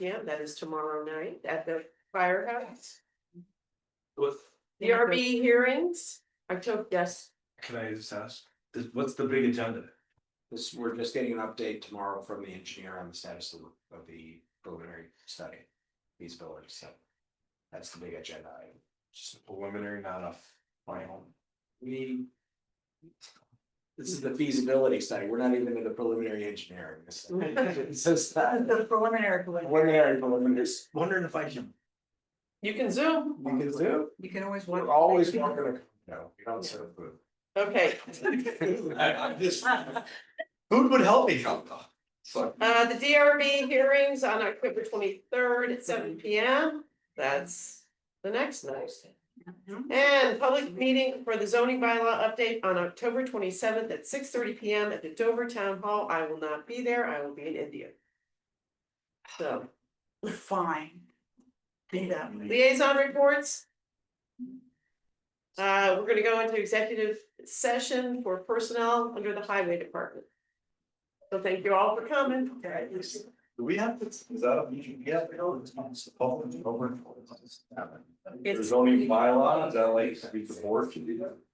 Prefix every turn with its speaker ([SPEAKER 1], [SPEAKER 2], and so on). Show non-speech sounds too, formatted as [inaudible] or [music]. [SPEAKER 1] Yeah, that is tomorrow night at the firehouse.
[SPEAKER 2] What,
[SPEAKER 1] ERB hearings, October, yes,
[SPEAKER 2] can I just ask, this, what's the big agenda?
[SPEAKER 3] This, we're just getting an update tomorrow from the engineer on the status of, of the preliminary study, feasibility study. That's the big agenda item.
[SPEAKER 2] Just a preliminary, not a f- final.
[SPEAKER 3] We. This is the feasibility study, we're not even in the preliminary engineering. [laughs] This is- It's just that-
[SPEAKER 4] The preliminary, preliminary.
[SPEAKER 3] Preliminary, preliminary.
[SPEAKER 2] Just wondering if I can.
[SPEAKER 1] you can zoom,
[SPEAKER 3] You can do,
[SPEAKER 4] you can always.
[SPEAKER 3] we're always
[SPEAKER 4] [laughs]
[SPEAKER 3] welcome, to- no, we don't serve food.
[SPEAKER 1] okay,
[SPEAKER 3] I- I'm [laughs] just- Food would help me help though. So,
[SPEAKER 1] uh, the DRB hearings on October twenty-third at seven P M, that's the next night. And public meeting for the zoning bylaw update on October twenty-seventh at six thirty P M at the Dover Town Hall, I will not be there, I will be in India. So,
[SPEAKER 4] [laughs] Fine. Be that.
[SPEAKER 1] liaison reports. Uh, we're gonna go into executive session for personnel under the highway department. So thank you all for coming.
[SPEAKER 2] Do we have to, is that a meeting? Yeah. we don't, it's not supposed to be open.
[SPEAKER 1] It's-
[SPEAKER 2] There's only bylaw, is that like, we the board can do that?